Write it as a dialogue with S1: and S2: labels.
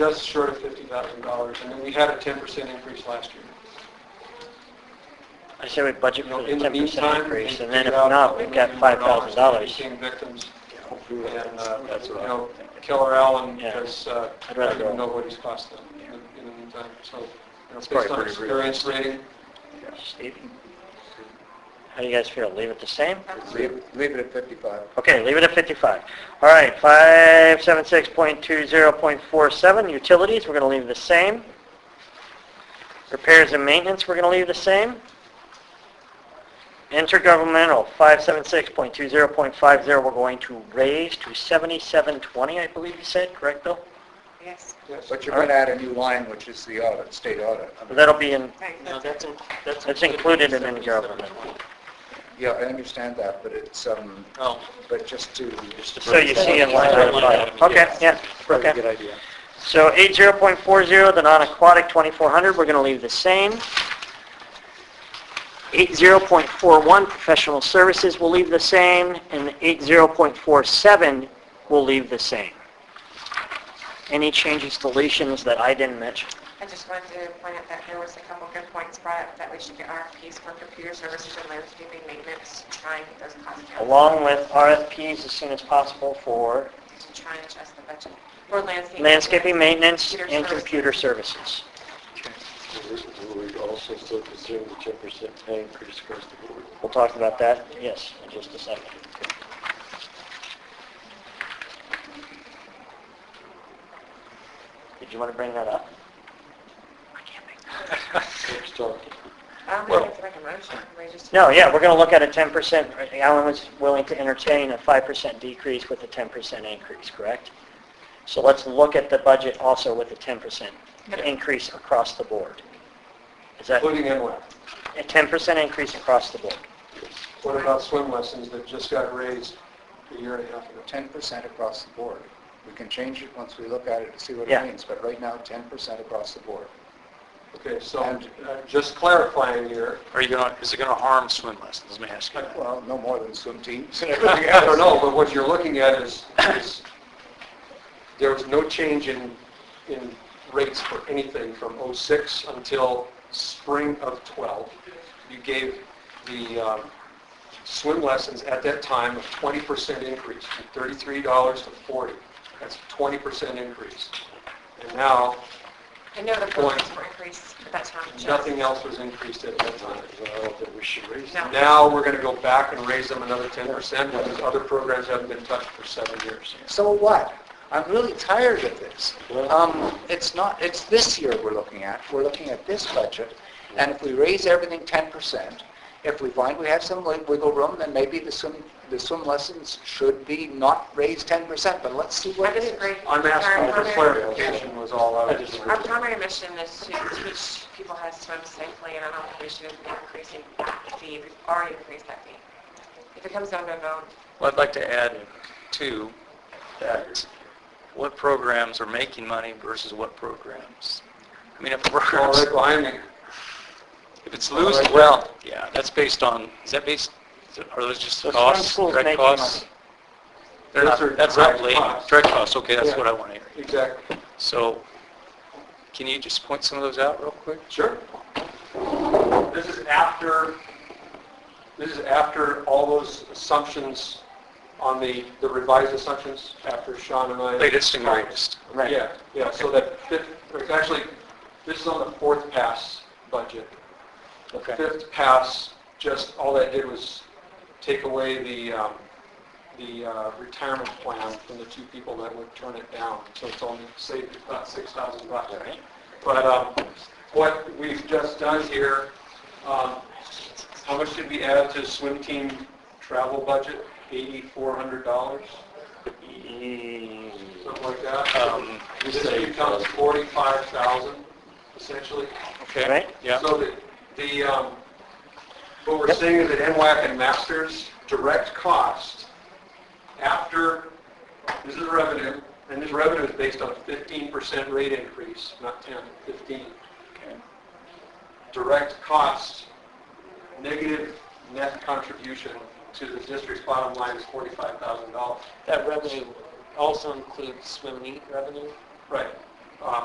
S1: just short of fifty thousand dollars, and then we had a ten percent increase last year.
S2: I say we budget
S1: You know,
S2: for
S1: in
S2: the
S1: the
S2: ten
S1: meantime.
S2: percent increase,
S1: we
S2: and then if
S1: figured out
S2: not, we've got five thousand dollars.
S1: Became victims, and, uh,
S3: That's
S1: you
S3: what I
S1: know,
S3: was thinking.
S1: Keller Allen
S2: Yeah.
S1: has, uh, I
S2: I'd rather
S1: don't even
S2: go.
S1: know what he's cost them in the- in the meantime, so, you know,
S3: That's
S1: based
S3: probably
S1: on
S3: pretty
S1: experience rating,
S2: Steve? How do you guys feel? Leave it the same?
S4: Leave leave it at 55.
S2: Okay, leave it at 55. All right, 576.20.47, utilities, we're going to leave the same. Repairs and maintenance, we're going to leave the same. Intergovernmental, 576.20.50, we're going to raise to 7720, I believe you said, correct, Bill?
S5: Yes.
S1: yes.
S4: But you're going to add a new line, which is the audit, state audit. I mean,
S2: That'll be in,
S5: Right,
S6: No,
S5: that's-
S6: that's, in- that's.
S2: That's included in
S6: $77.20.
S4: Yeah, I understand that, but it's, um,
S6: Oh,
S4: but just to, just
S2: so you see in line
S6: Right,
S2: item
S6: line
S2: five.
S6: item,
S2: Okay,
S6: yes.
S2: yeah,
S3: Probably a
S2: okay.
S3: good idea.
S2: So 80.40, the non-aquatic 2400, we're going to leave the same. 80.41, professional services will leave the same, and 80.47 will leave the same. Any changes, deletions that I didn't mention?
S5: I just wanted to point out that there was a couple good points brought up, that we should get RFPs for computer services and landscaping maintenance, to try and get those costs down.
S2: Along with RFPs as soon as possible for
S5: To try and adjust the budget. For landscaping.
S2: landscaping maintenance
S5: Computer
S2: and
S5: services.
S2: computer services.
S3: We're also still considering the 10% pay increase across the board.
S2: We'll talk about that, yes, in just a second. Did you want to bring that up?
S3: Let's talk.
S5: I don't think Um, we have to make a motion, we just.
S2: No, yeah, we're going to look at a 10%, Alan was willing to entertain a 5% decrease with a 10% increase, correct? So let's look at the budget also with a 10% increase across the board. Is that a
S1: Including NWAC.
S2: 10% increase across the board?
S1: What about swim lessons that just got raised a year and a half ago?
S4: 10% across the board. We can change it once we look at it to see what
S2: Yeah.
S4: it means, but right now, 10% across the board.
S1: Okay, so I'm I'm just clarifying here,
S6: Are you gonna, is it gonna harm swim lessons? Let me ask you that.
S4: Well, no more than swim teams and everything
S1: I
S4: else.
S1: don't know, but what you're looking at is, is there was no change in, in rates for anything from '06 until spring of '12. You gave the um, swim lessons at that time a 20% increase, from $33 to 40. That's a 20% increase. And now,
S5: I know the points were increased, but that's not just.
S1: nothing else was increased at that time.
S3: I don't think we should raise
S5: No.
S1: Now, we're going to go back and raise them another 10% because other programs haven't been touched for seven years.
S4: So what? I'm really tired of this. Um, it's not, it's this year we're looking at, we're looking at this budget, and if we raise everything 10%, if we find we have some wig- wiggle room, then maybe the swim, the swim lessons should be not raised 10%, but let's see
S5: I
S4: what it is.
S5: disagree.
S1: I'm asking
S5: Our
S1: for
S5: primary-
S1: clarification was all I was.
S5: Our primary mission is to teach people how to swim safely, and I don't think we should be increasing that fee. We've already increased that fee. If it comes down to a vote,
S6: Well, I'd like to add, too, that what programs are making money versus what programs. I mean, if
S1: All
S6: programs,
S1: right, behind me.
S6: if it's losing,
S1: Alright.
S6: well, yeah, that's based on, is that based, are those just
S2: So some
S6: costs,
S2: schools
S6: direct
S2: making
S6: costs?
S2: money.
S6: They're not,
S1: Those are
S6: that's not
S1: direct
S6: labor,
S1: costs.
S6: direct costs, okay, that's
S1: Yeah.
S6: what I want to hear.
S1: Exactly.
S6: So, can you just point some of those out real quick?
S1: Sure. This is after, this is after all those assumptions on the, the revised assumptions after Sean and I.
S6: Latest and greatest.
S2: Right.
S1: Yeah, yeah, so that fifth, or it's actually, this is on the fourth pass budget. The
S6: Okay.
S1: fifth pass, just, all that did was take away the, um, the uh, retirement plan from the two people that would turn it down. So it's only saved about six thousand bucks. But, um, what we've just done here, um, how much did we add to swim team travel budget? Eighty-four hundred dollars, something like that.
S6: Um,
S1: This becomes 45,000 essentially.
S6: Okay,
S2: Right.
S6: yeah.
S1: So the, the, um, what we're seeing is that NWAC and Masters direct cost after, this is revenue, and this revenue is based on a 15% rate increase, not 10, 15. Direct cost, negative net contribution to the district's bottom line is $45,000.
S6: That revenue also includes swim meet revenue?
S1: Right. Uh,